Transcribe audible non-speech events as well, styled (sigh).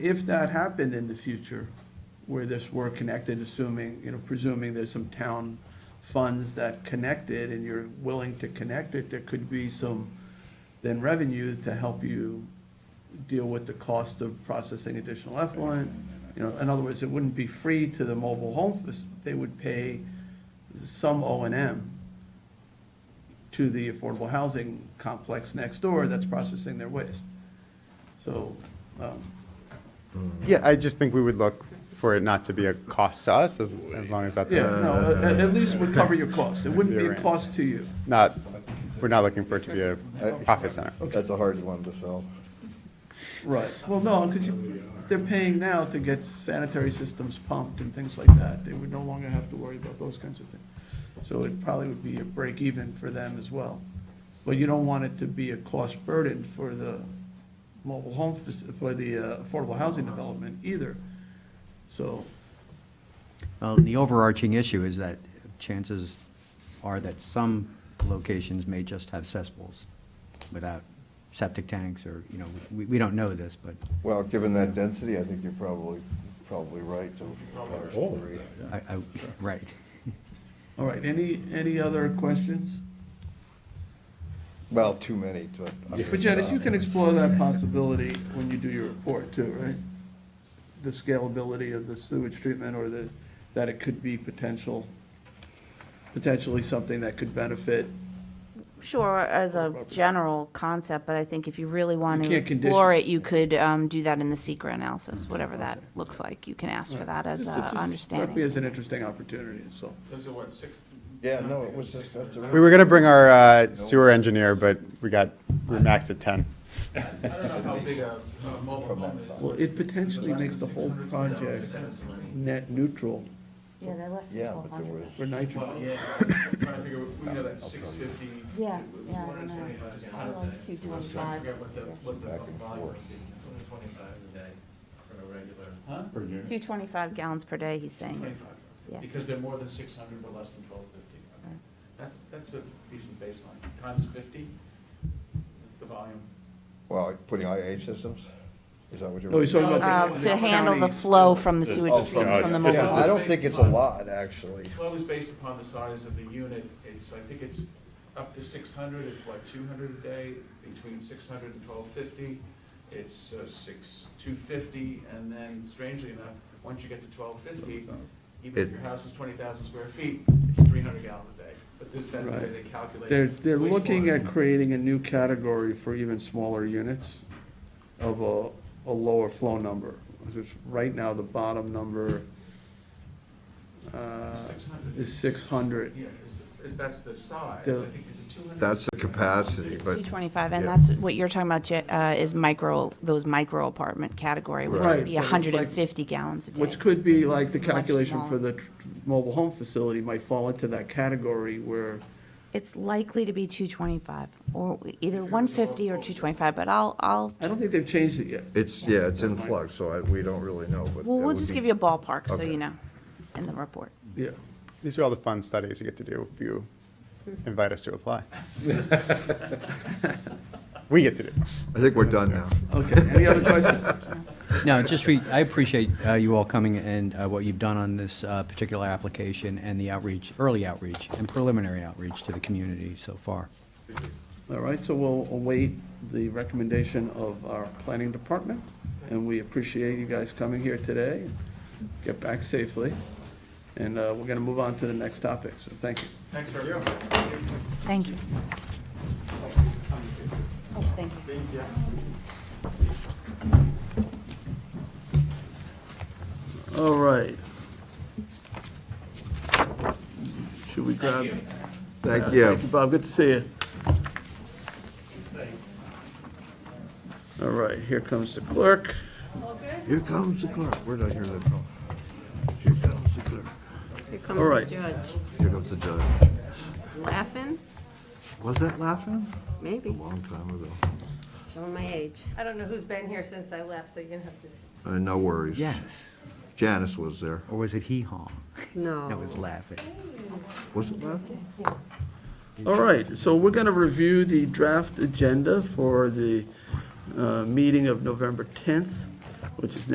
If that happened in the future, where this were connected, assuming, you know, presuming there's some town funds that connected and you're willing to connect it, there could be some then revenue to help you deal with the cost of processing additional effluent. You know, in other words, it wouldn't be free to the mobile home, fac- they would pay some O and M to the affordable housing complex next door that's processing their waste. So, um, Yeah, I just think we would look for it not to be a cost to us, as, as long as that's yeah, no, at, at least would cover your cost. It wouldn't be a You're right. cost to you. not, we're not looking for it to be a profit center. That's a hard one to sell. Right. Well, no, because you, they're paying now to get sanitary systems pumped and things like that. They would no longer have to worry about those kinds of things. So it probably would be a break even for them as well. But you don't want it to be a cost burden for the mobile home, fac- for the uh, affordable housing development either. So, Well, the overarching issue is that chances are that some locations may just have cesspools without septic tanks or, you know, we, we don't know this, but Well, given that density, I think you're probably, probably right to a large degree. I, I, right. all right, any, any other questions? Well, too many to. But Janice, you can explore that possibility when you do your report too, right? The scalability of the sewage treatment or the, that it could be potential, potentially something that could benefit. Sure, as a general concept, but I think if you really want You to can't condition explore it. it, you could um, do that in the secret analysis, whatever that looks like. You can ask for that as Just- a it just Struck me understanding. as an interesting opportunity, so. Those are what, six? Yeah, no, it was discussed. We were gonna bring our uh, sewer engineer, but we got, we maxed at ten. I don't know how big a a mobile home is. Well, it potentially Less than makes the whole 600 square project yards. net neutral Yeah, they're less than Yeah, but twelve there hundred. was, for nitrogen. Well, (coughs) yeah, I'm trying to figure, we know that six fifty. Yeah, yeah, I don't know. Probably like two I twenty-five, forget what the, what the Back and volume would forth. be. a day for a regular. Two twenty-five gallons per day, he's saying. is- 25. Yeah. Mm. Because they're more than six hundred, but less than twelve fifty. That's, that's a decent baseline. Times fifty, that's the volume. well, putting IA systems, is that what you're? No, he's talking about. Uh, the To handle the counties. flow from the sewage, Oh, treatment from the Yeah, mobile. I don't think it's a lot, actually. Flow is based upon the size of the unit. It's, I think it's up to six hundred, it's like two hundred a day, between six hundred and twelve fifty. It's uh, six, two fifty, and then strangely enough, once you get to twelve fifty, even if your house is twenty thousand square feet, it's three hundred gallons a day. But this, that's the way they calculate. They're, they're looking wastewater. at creating a new category for even smaller units of a, a lower flow number. Because right now, the bottom number, uh, 600. is six hundred. Yeah, is, the- is, that's the size, I The- think is it two hundred? That's the capacity, Two but twenty-five, and Yeah. that's what you're talking about, Je- uh, is micro, those micro apartment category, which Right, would be but it's like- hundred and fifty gallons a day. Which could be This is like the much calculation for smaller. the tr- mobile home facility might fall into that category where, It's likely to be two twenty-five, or either one fifty or two twenty-five, but I'll, I'll, I don't think they've changed it yet. it's, yeah, it's in flux, so I, we don't really know, but. we'll, it we'll would just be- give you a ballpark, so Okay. you know, in the report. Yeah. These are all the fun studies you get to do if you invite us to apply. We get to do. I think we're done now. Okay, any other questions? No, just re, I appreciate uh, you all coming and uh, what you've done on this uh, particular application and the outreach, early outreach and preliminary outreach to the community so far. All right, so we'll await the recommendation of our planning department, and we appreciate you guys coming here today. Get back safely, and uh, we're going to move on to the next topic, so thank you. Thanks for everything. Thank you. oh, thank you. All right. Should we grab? Thank you. Bob, good to see you. All right, here comes the clerk. Here comes the clerk. Where did I hear that from? Here comes the clerk. Here All comes right. the judge. Here comes the judge. Laughing? Was that laughing? A Maybe. long time ago. Showing my age. I don't know who's been here since I left, so you're gonna have to. Uh, no worries. Yes. Janice was there. Or was it hee-haw? No. That was laughing. Was it laughing? All right, so we're going to review the draft agenda for the uh, meeting of November 10th, which is